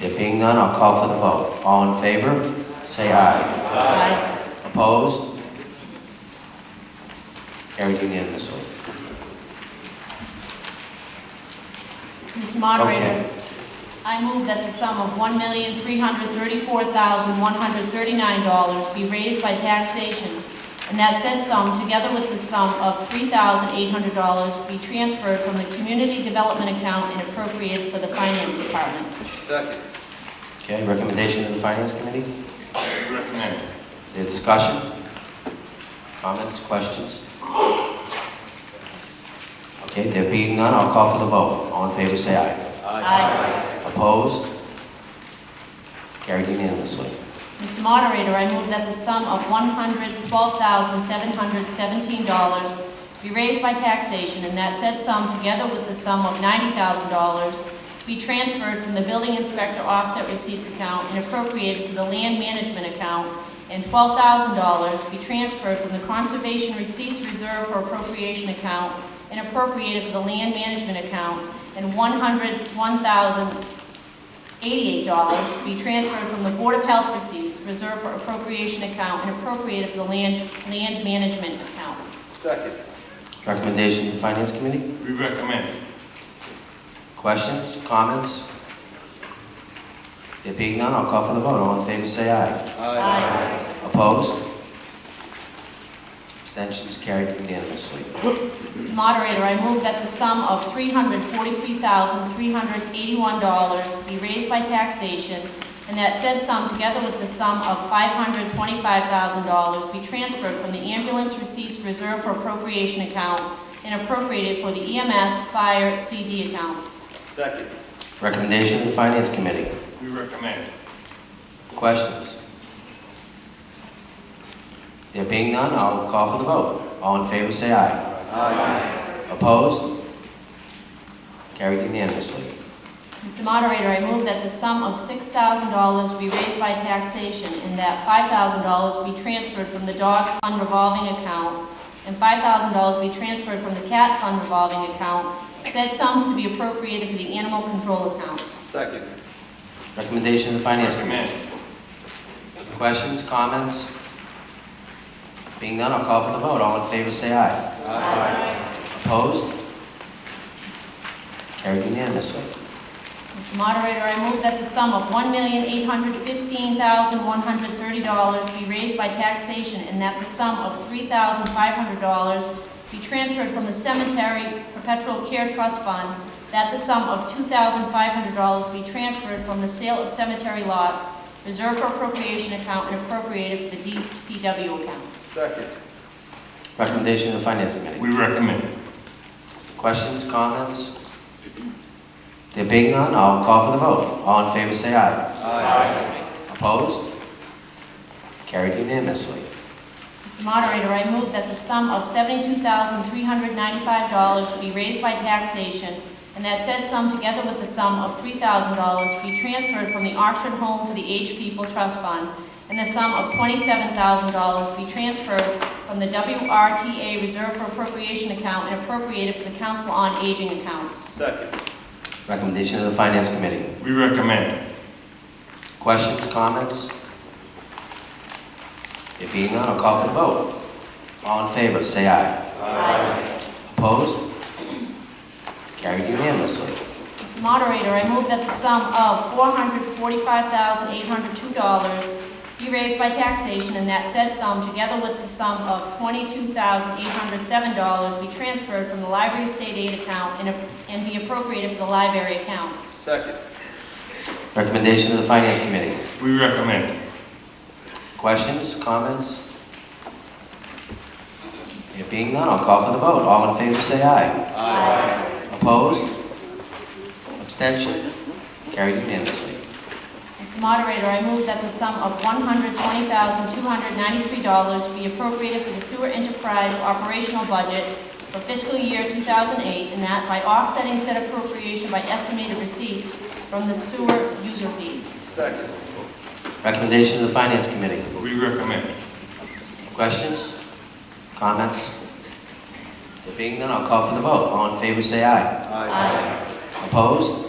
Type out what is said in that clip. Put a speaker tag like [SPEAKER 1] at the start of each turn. [SPEAKER 1] There being none, I'll call for the vote. All in favor, say aye.
[SPEAKER 2] Aye.
[SPEAKER 1] Opposed? Carried unanimously.
[SPEAKER 2] Mr. Moderator,
[SPEAKER 1] Okay.
[SPEAKER 2] I move that the sum of $1,334,139 be raised by taxation, and that said sum, together with the sum of $3,800, be transferred from the community development account and appropriated for the finance department.
[SPEAKER 3] Second.
[SPEAKER 1] Okay, recommendation to the Finance Committee?
[SPEAKER 3] Recommend.
[SPEAKER 1] Is there discussion? Comments, questions? Okay, there being none, I'll call for the vote. All in favor, say aye.
[SPEAKER 2] Aye.
[SPEAKER 1] Opposed? Carried unanimously.
[SPEAKER 2] Mr. Moderator, I move that the sum of $112,717 be raised by taxation, and that said sum, together with the sum of $90,000, be transferred from the building inspector offset receipts account and appropriated to the land management account, and $12,000 be transferred from the conservation receipts reserve for appropriation account and appropriated to the land management account, and $101,000 $88 be transferred from the Board of Health receipts reserved for appropriation account and appropriated for the land, land management account.
[SPEAKER 3] Second.
[SPEAKER 1] Recommendation to the Finance Committee?
[SPEAKER 3] We recommend.
[SPEAKER 1] Questions, comments? There being none, I'll call for the vote. All in favor, say aye. Opposed? Abstentions carried unanimously.
[SPEAKER 2] Mr. Moderator, I move that the sum of $343,381 be raised by taxation, and that said sum, together with the sum of $525,000, be transferred from the ambulance receipts reserved for appropriation account and appropriated for the EMS, fire, CD accounts.
[SPEAKER 3] Second.
[SPEAKER 1] Recommendation to the Finance Committee?
[SPEAKER 3] We recommend.
[SPEAKER 1] Questions? There being none, I'll call for the vote. All in favor, say aye.
[SPEAKER 3] Aye.
[SPEAKER 1] Opposed? Carried unanimously.
[SPEAKER 2] Mr. Moderator, I move that the sum of $6,000 be raised by taxation and that $5,000 be transferred from the dog fund revolving account and $5,000 be transferred from the cat fund revolving account, said sums to be appropriated for the animal control accounts.
[SPEAKER 3] Second.
[SPEAKER 1] Recommendation to the Finance Committee? Questions, comments? Being none, I'll call for the vote. All in favor, say aye. Opposed? Carried unanimously.
[SPEAKER 2] Mr. Moderator, I move that the sum of $1,815,130 be raised by taxation and that the sum of $3,500 be transferred from the Cemetery Perpetual Care Trust Fund, that the sum of $2,500 be transferred from the sale of cemetery lots, reserved for appropriation account, and appropriated for the DPW account.
[SPEAKER 3] Second.
[SPEAKER 1] Recommendation to the Finance Committee?
[SPEAKER 4] We recommend.
[SPEAKER 1] Questions, comments? There being none, I'll call for the vote. All in favor, say aye.
[SPEAKER 3] Aye.
[SPEAKER 1] Opposed? Carried unanimously.
[SPEAKER 2] Mr. Moderator, I move that the sum of $72,395 be raised by taxation, and that said sum, together with the sum of $3,000, be transferred from the Oxford Home for the Aged People Trust Fund, and the sum of $27,000 be transferred from the WRTA Reserve for Appropriation Account and appropriated for the Council on Aging Accounts.
[SPEAKER 3] Second.
[SPEAKER 1] Recommendation of the Finance Committee.
[SPEAKER 4] We recommend.
[SPEAKER 1] Questions, comments? There being none, I'll call for the vote. All in favor, say aye. Opposed? Carried unanimously.
[SPEAKER 2] Mr. Moderator, I move that the sum of $445,802 be raised by taxation and that said sum, together with the sum of $22,807, be transferred from the library state aid account and- and be appropriated for the library accounts.
[SPEAKER 3] Second.
[SPEAKER 1] Recommendation of the Finance Committee.
[SPEAKER 4] We recommend.
[SPEAKER 1] Questions, comments? There being none, I'll call for the vote. All in favor, say aye. Opposed? Abstention? Carried unanimously.
[SPEAKER 2] Mr. Moderator, I move that the sum of $120,293 be appropriated for the sewer enterprise operational budget for fiscal year 2008, and that by offsetting said appropriation by estimated receipts from the sewer user fees.
[SPEAKER 3] Second.
[SPEAKER 1] Recommendation of the Finance Committee.
[SPEAKER 4] We recommend.
[SPEAKER 1] Questions? Comments? There being none, I'll call for the vote. All in favor, say aye. Opposed?